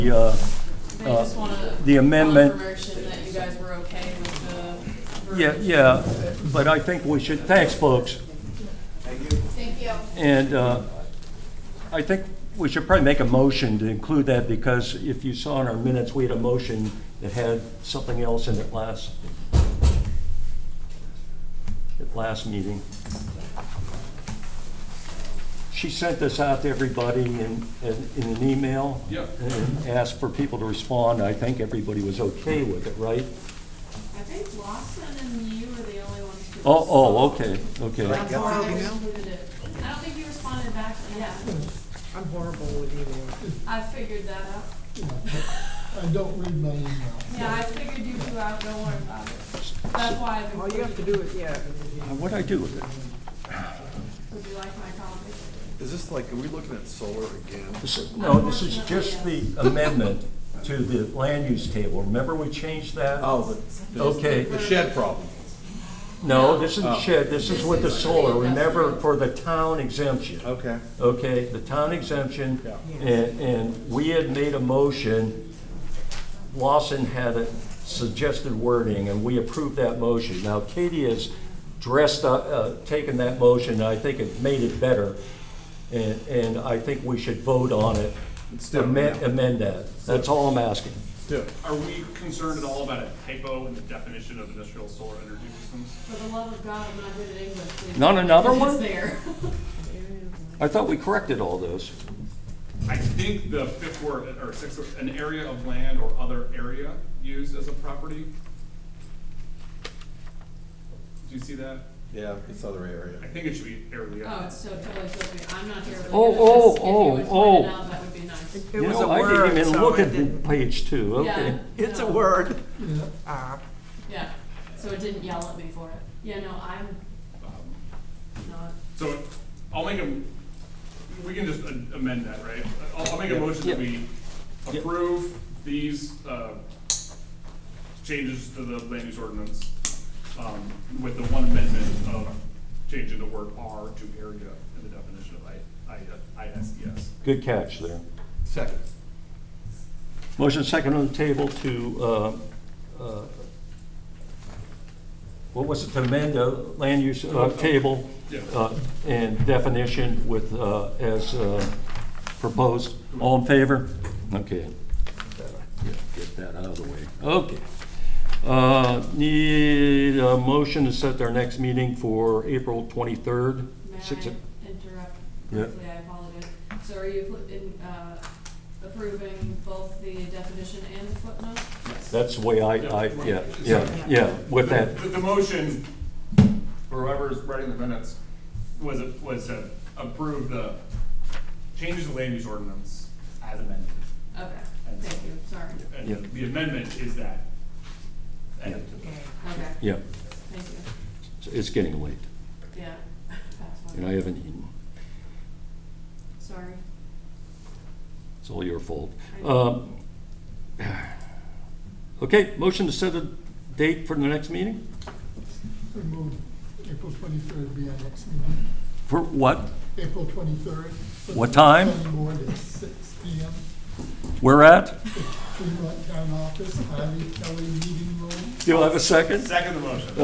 The, uh, I just want to. the amendment- Confirmation that you guys were okay with the. Yeah, verbiage. yeah, but I think we should, thanks, folks. Thank you. And uh, I think we should probably make a motion to include that, because if you saw in our minutes, we had a motion that had something else in it last, at last meeting. She sent this out to everybody in, in in an email. Yep. And asked for people to respond. I think everybody was okay with it, right? I think Lawson and you were the only ones who. Oh, oh, okay, okay. That's why I included it. I don't think you responded back, but yeah, I'm horrible with emails. I figured that out. I don't read my email. Yeah, I figured you two out, don't worry about it. That's why I've All you have to included. do is, yeah, What'd I do with it? Would you like my copy? Is this like, are we looking at solar again? This- No, this is just the amendment to the land use table. Remember we changed that? Oh, the, Okay. the shed problem. No, this is shed, this is with the solar. Remember for the town exemption. Okay. Okay, the town exemption, Yeah. and, and we had made a motion. Lawson had a suggested wording, and we approved that motion. Now Katie has dressed, up, uh, taken that motion, and I think it made it better. And, and I think we should vote on it, Instead of amend, now. amend that. That's all I'm asking. Do Are we concerned at all about a typo in the definition of industrial solar energy systems? For the love of God, I'm not good at English. please. Not another one? It's there. I thought we corrected all those. I think the fifth word, or sixth, word, an area of land or other area used as a property. Do you see that? Yeah, it's other I area. think it should be area. Oh, it's so totally filthy. I'm not here. really Oh, good at this. oh, oh, If you would point oh. it out, That would be nice. it was You a know, I didn't word, even so look I at didn't. page two, okay. Yeah, It's a no. word. Yeah. Ah, Yeah, so it didn't yell at me for it. Yeah, no, I'm Um, not. So I'll make a, we can just a- amend that, right? I'll, I'll make a motion Yeah. that we Yeah. approve these, uh, changes to the land use ordinance, um, with the one amendment of changing the word R to area in the definition of I, I, E ISES. Good catch there. Second. Motion second on the table to, uh, uh, what was it, to amend the land use uh, table Yeah. uh, and definition with, uh, as uh, proposed. All in favor? Okay. Get that out of the way. Okay. Uh, Need a motion to set our next meeting for April 23rd? May Six o- I interrupt Yeah. briefly? I apologize. So are you put- in, uh, approving both the definition and the footnote? That's the way I, I, yeah, yeah, yeah, with that. The, the motion, for whoever's writing the minutes, was, was to approve the changes to land use ordinance as amended. Okay, And thank so- you, sorry. Yeah. And the amendment is that. added to the- Okay, Yeah, thank you. it's getting late, Yeah. That's fine. and I haven't eaten. Sorry. It's all your fault. I- Um, Okay, motion to set a date for the next meeting? We moved April twenty-third be our next meeting. For what? April twenty-third. What time? Planning board at six P M. Where at? Fremont Town Office, Harvey Kelly Meeting Room. Do you have a second? Second the motion.